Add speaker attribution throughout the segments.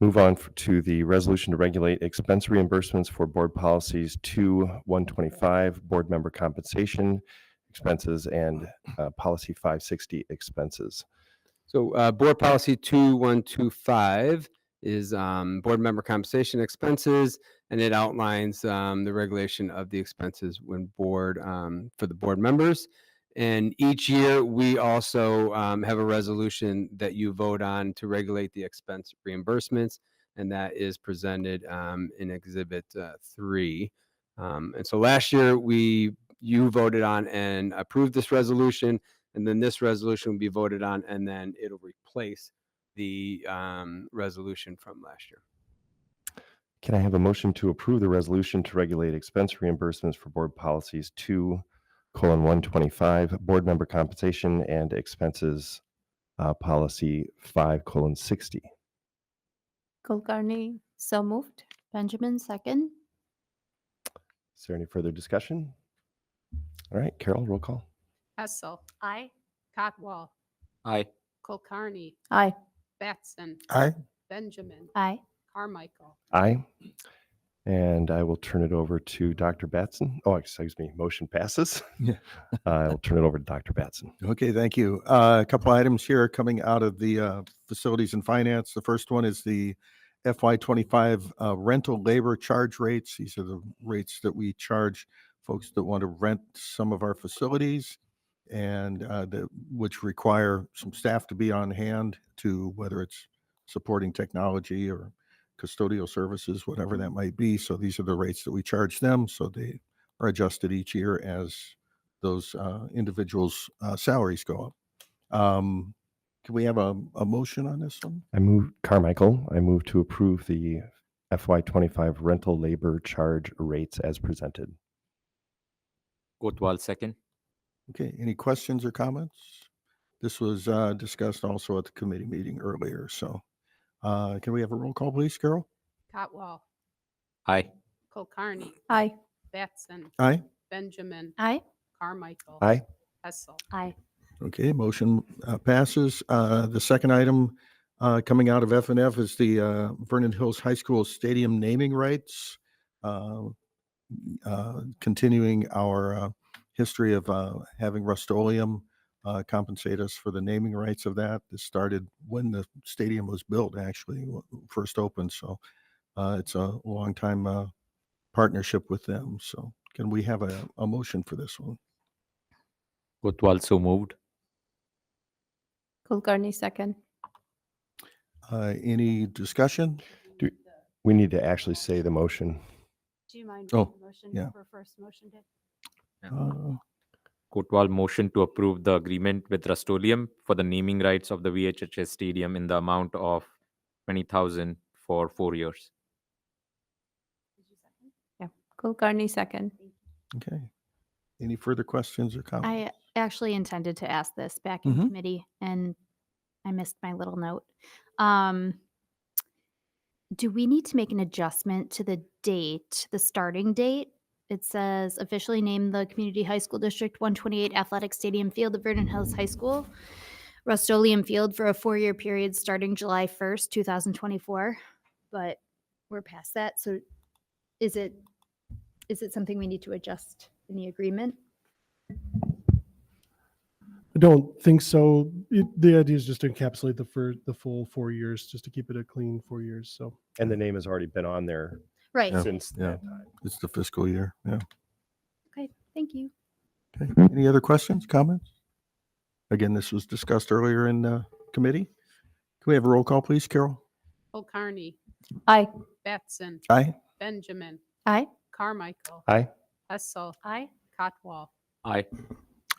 Speaker 1: Move on f- to the resolution to regulate expense reimbursements for board policies two one twenty-five, board member compensation expenses and uh, policy five sixty expenses.
Speaker 2: So uh, Board Policy 2125 is um, board member compensation expenses, and it outlines um, the regulation of the expenses when board, um, for the board members. And each year, we also um, have a resolution that you vote on to regulate the expense reimbursements, and that is presented um, in Exhibit uh, 3. Um, And so last year, we, you voted on and approved this resolution. And then this resolution will be voted on, and then it'll replace the um, resolution from last year.
Speaker 1: Can I have a motion to approve the resolution to regulate expense reimbursements for board policies two colon one twenty-five, board member compensation and expenses, uh, policy five colon sixty?
Speaker 3: Kulkarni, so moved. Benjamin, second.
Speaker 1: Is there any further discussion? All right, Carol, roll call.
Speaker 4: Hessel,
Speaker 3: Aye.
Speaker 4: Cotwall,
Speaker 5: Aye.
Speaker 4: Kulkarni,
Speaker 3: Aye.
Speaker 4: Batson,
Speaker 5: Aye.
Speaker 4: Benjamin,
Speaker 3: Aye.
Speaker 4: Carmichael.
Speaker 1: Aye. And I will turn it over to Dr. Batson. Oh, excuse me, motion passes.
Speaker 5: Yeah.
Speaker 1: I'll turn it over to Dr. Batson.
Speaker 6: Okay, thank you. Uh, A couple items here coming out of the uh, Facilities and Finance. The first one is the FY twenty-five uh, rental labor charge rates. These are the rates that we charge folks that want to rent some of our facilities and uh, the, which require some staff to be on hand to whether it's supporting technology or custodial services, whatever that might be. So these are the rates that we charge them. So they are adjusted each year as those uh, individuals' uh, salaries go up. Um, Can we have a, a motion on this one?
Speaker 1: I move, Carmichael, I move to approve the FY25 rental labor charge rates as presented.
Speaker 5: Kotwal second.
Speaker 6: Okay, any questions or comments? This was uh, discussed also at the committee meeting earlier, so uh, can we have a roll call, please, Carol?
Speaker 4: Cotwall,
Speaker 5: Aye.
Speaker 4: Kulkarni,
Speaker 3: Aye.
Speaker 4: Batson,
Speaker 6: Aye.
Speaker 4: Benjamin,
Speaker 3: Aye.
Speaker 4: Carmichael.
Speaker 1: Aye.
Speaker 4: Hessel,
Speaker 3: Aye.
Speaker 6: Okay, motion uh, passes. Uh, The second item uh, coming out of F and F is the uh, Vernon Hills High School Stadium naming rights. uh, uh, Continuing our uh, history of uh, having Rust-Oleum uh, compensate us for the naming rights of that. This started when the stadium was built, actually, w- first opened, so uh, it's a long time uh, partnership with them. So can we have a, a motion for this one?
Speaker 5: Kotwal so moved.
Speaker 3: Kulkarni, second.
Speaker 6: Uh, Any discussion?
Speaker 1: We need to actually say the motion.
Speaker 7: Do you mind?
Speaker 6: Oh,
Speaker 7: reading the motion
Speaker 6: yeah.
Speaker 7: For first motion, Dave?
Speaker 6: Uh,
Speaker 5: Kotwal motion to approve the agreement with Rustolium for the naming rights of the VHHS stadium in the amount of twenty thousand for four years.
Speaker 7: Did you second?
Speaker 3: Kulkarni, second.
Speaker 6: Okay. Any further questions or comments?
Speaker 7: I uh, actually intended to ask this back in
Speaker 6: Mhm.
Speaker 7: committee and I missed my little note. Um, do we need to make an adjustment to the date, the starting date? It says officially name the Community High School District 128 Athletic Stadium Field of Vernon Hills High School, Rust-Oleum Field for a four-year period starting July 1st, 2024. But we're past that, so is it, is it something we need to adjust in the agreement?
Speaker 8: I don't think so. It, the idea is just to encapsulate the for the full four years, just to keep it a clean four years. So
Speaker 1: And the name has already been on there
Speaker 7: Right.
Speaker 1: since
Speaker 6: Yeah.
Speaker 1: that time.
Speaker 6: It's the fiscal year. Yeah.
Speaker 7: Okay, thank you.
Speaker 6: Okay. Any other questions, comments? Again, this was discussed earlier in uh, committee. Can we have a roll call, please, Carol?
Speaker 4: Kulkarni,
Speaker 3: Aye.
Speaker 4: Batson,
Speaker 6: Aye.
Speaker 4: Benjamin,
Speaker 3: Aye.
Speaker 4: Carmichael.
Speaker 1: Aye.
Speaker 4: Hessel,
Speaker 7: Aye.
Speaker 4: Cotwall.
Speaker 5: Aye.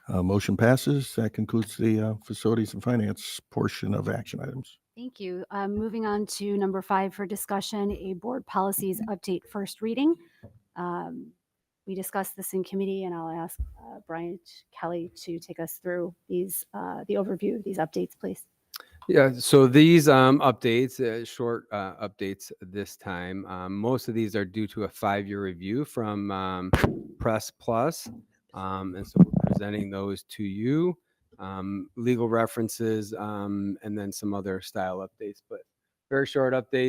Speaker 6: Uh, Motion passes. That concludes the uh, facilities and finance portion of action items.
Speaker 9: Thank you. Um, Moving on to number five for discussion, a board policies update first reading. Um, We discussed this in committee and I'll ask uh, Brian Kelly to take us through these, uh, the overview of these updates, please.
Speaker 2: Yeah, so these um, updates, uh, short uh, updates this time, um, most of these are due to a five-year review from um, Press Plus. Um, and so we're presenting those to you, um, legal references, um, and then some other style updates, but very short updates.